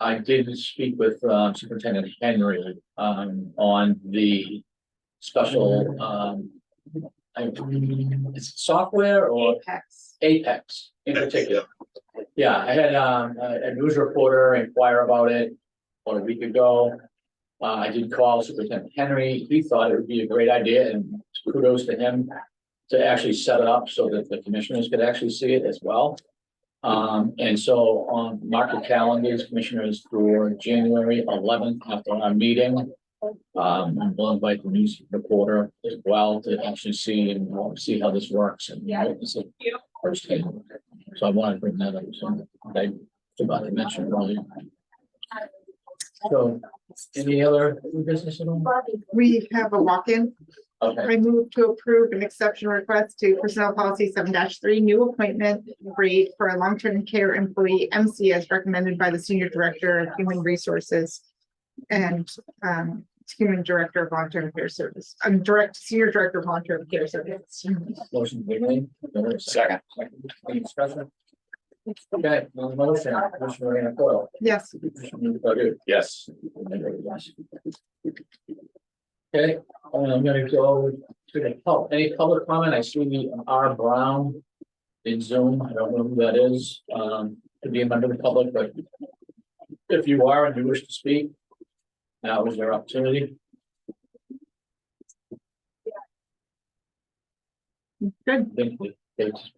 I did speak with uh, Superintendent Henry um, on the special um. I- Is it software or Apex. Apex in particular? Yeah, I had um, a a news reporter inquire about it about a week ago. Uh, I did call Superintendent Henry. He thought it would be a great idea and kudos to him to actually set it up so that the commissioners could actually see it as well. Um, and so on market calendars, commissioners for January eleventh after our meeting. Um, we'll invite the news reporter as well to actually see and uh, see how this works and. Yeah. witness it firsthand. So I wanted to bring that up, so I forgot to mention earlier. So, any other business at all? We have a walk-in. Okay, I move to approve an exception request to personnel policy seven three, new appointment grade for a long-term care employee MC as recommended by the senior director of human resources and um human director of long-term care service, um, direct, senior director of long-term care service. motion Wiggly. Second. Any discussion? Okay, on the motion, Commissioner Ryan Coyle. Yes, Commissioner Godu. Yes. Okay, um, I'm gonna go to the pub, any public comment, I see the R Brown in Zoom, I don't know who that is, um, to be a member of the public, but if you are and you wish to speak, now is your opportunity. good. They- they- they just-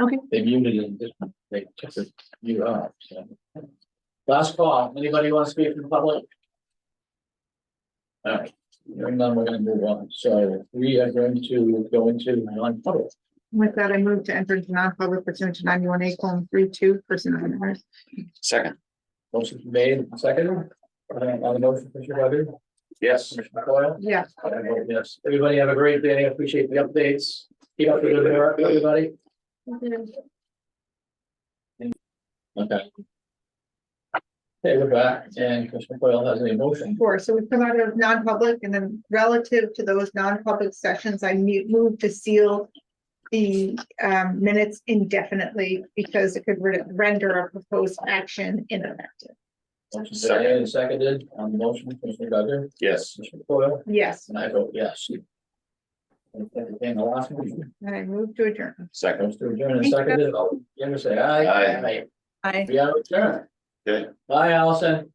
Okay. They muted it, just- they took it, you out, so. Last call, anybody want to speak in public? All right, hearing none, we're gonna move on, so we are going to go into non-public. With that, I move to enter into non-public pursuant to ninety-one A colon three two personnel matters. Second. Motion made, and seconded, Uh, on the motion, Commissioner Godu? Yes. Commissioner Coyle? Yes. I vote Yes, everybody have a great day, I appreciate the updates, keep up the good work, everybody. Okay. Okay, we're back, and Commissioner Coyle has a motion. Four, so we come out of non-public and then relative to those non-public sessions, I mu- move to seal. The um minutes indefinitely because it could re- render a proposed action ineffective. Motion made and seconded on the motion, Commissioner Godu? Yes. Commissioner Coyle? Yes, And I vote yes. And the last one, and I move to adjourn. Second. those to adjourn and seconded, all in favor say aye. Aye. Aye. Aye. We are adjourned. Okay. Bye, Allison.